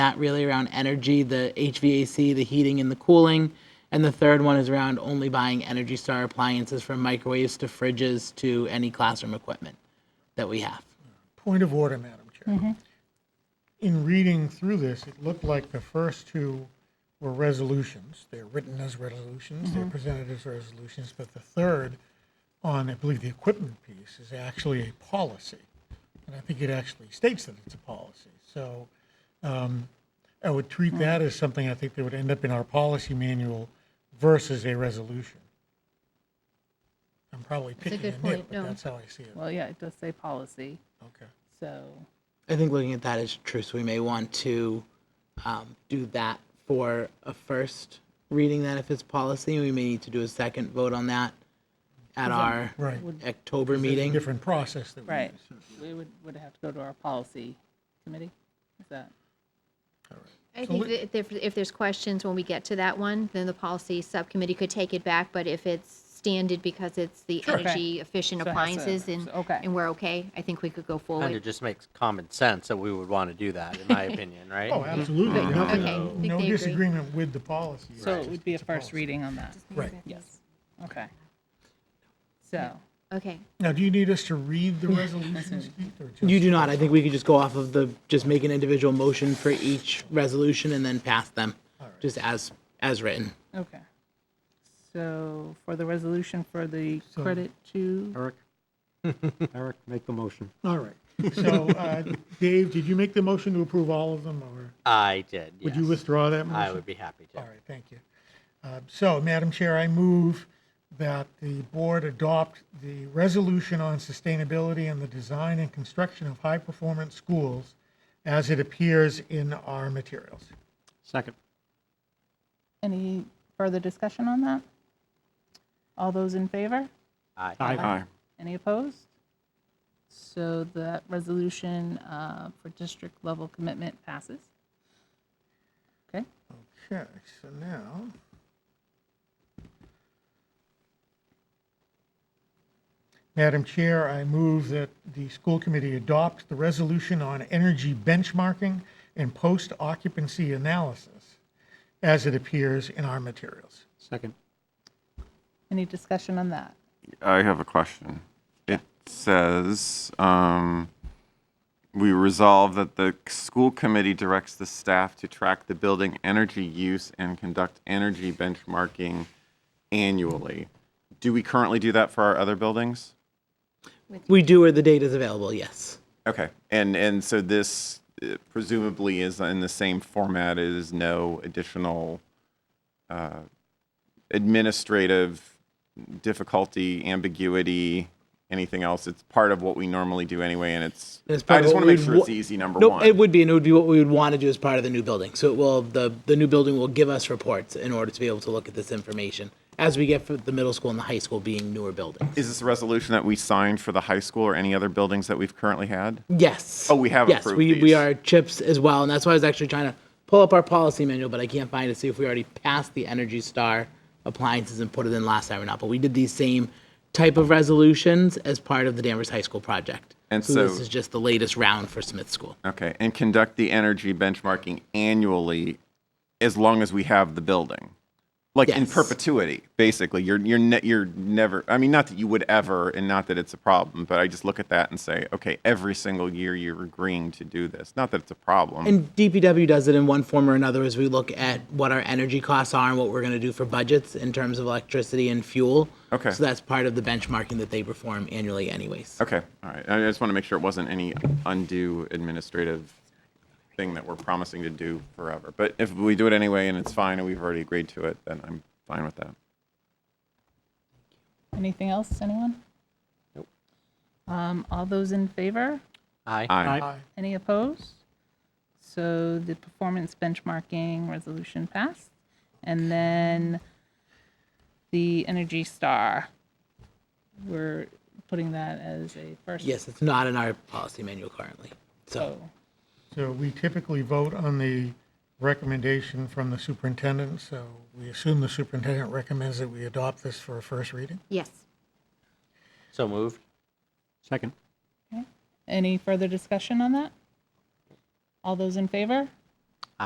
that really around energy, the HVAC, the heating and the cooling. And the third one is around only buying Energy Star appliances from microwaves to fridges to any classroom equipment that we have. Point of order, Madam Chair. In reading through this, it looked like the first two were resolutions. They're written as resolutions, they're presented as resolutions, but the third on, I believe, the equipment piece is actually a policy. And I think it actually states that it's a policy. So um, I would treat that as something I think that would end up in our policy manual versus a resolution. I'm probably picking good a nit, point, but no. that's how I see it. Well, yeah, it does say policy, Okay. so, I think looking at that is true, so we may want to um, do that for a first reading that if it's policy. We may need to do a second vote on that at our Right. October It's a meeting. Different process that we right, use. we would, would have to go to our policy committee, is that? So I think we- that if, there- if there's questions when we get to that one, then the policy subcommittee could take it back, but if it's standard because it's the Okay. energy efficient So it has to- appliances and, so- okay. and we're okay, I think we could go Kind of forward. just makes common sense that we would want to do that, in my opinion, right? Oh, absolutely. Right, No- okay, I think No they agree. disagreement with the policy. So it would be a It's first policy. reading on that, Right. yes, okay. So, Okay, Now, do you need us to read the resolutions, Keith, or just? You do not, I think we could just go off of the, just make an individual motion for each resolution and then pass them, just as, as written. okay. So for the resolution for the credit to, Eric? Eric, make the motion. All right. So, uh, Dave, did you make the motion to approve all of them, or I did, would you yes. withdraw that motion? I would be happy All to. right, thank you. Uh, So, Madam Chair, I move that the board adopt the resolution on sustainability and the design and construction of high-performance schools as it appears in our materials. Second. any further discussion on that? All those in favor? Aye. Aye. Any opposed? So that resolution uh, for district level commitment passes. Okay, Okay, so now. Madam Chair, I move that the school committee adopt the resolution on energy benchmarking and post-occupancy analysis as it appears in our materials. Second. any discussion on that? I have a question. It says, um, we resolve that the school committee directs the staff to track the building energy use and conduct energy benchmarking annually. Do we currently do that for our other buildings? We do where the data is available, yes. Okay, and, and so this uh, presumably is in the same format as no additional uh, administrative difficulty, ambiguity, anything else. It's part of what we normally do anyway, and it's, And it's part I of just what want to make we'd sure wa- it's easy, number Nope, one. it would be, and it would be what we would want to do as part of the new building. So it will, the, the new building will give us reports in order to be able to look at this information as we get for the middle school and the high school being newer buildings. Is this a resolution that we signed for the high school or any other buildings that we've currently had? Yes. Oh, we have Yes, approved we, we these. are chips as well, and that's why I was actually trying to pull up our policy manual, but I can't find it to see if we already passed the Energy Star appliances and put it in last time or not. But we did these same type of resolutions as part of the Danvers High School project. And this so- is just the latest round for Smith School. Okay, and conduct the energy benchmarking annually as long as we have the building. Like in Yes. perpetuity, basically. You're you're ne- you're never I mean not that you would ever and not that it's a problem, but I just look at that and say, okay, every single year you're agreeing to do this. Not that it's a problem. And DPW does it in one form or another as we look at what our energy costs are and what we're going to do for budgets in terms of electricity and fuel. Okay. So that's part of the benchmarking that they perform annually anyways. okay. All right. I just want to make sure it wasn't any undue administrative thing that we're promising to do forever. But if we do it anyway and it's fine and we've already agreed to it, then I'm fine with that. Anything else, anyone? Nope. Um, All those in favor? Aye. Aye. Any opposed? So the performance benchmarking resolution passed. And then the Energy Star, we're putting that as a first. Yes, it's not in our policy manual currently. So So, So we typically vote on the recommendation from the superintendent, so we assume the superintendent recommends that we adopt this for a first reading? yes. So moved. Second. Any further discussion on that? All those in favor?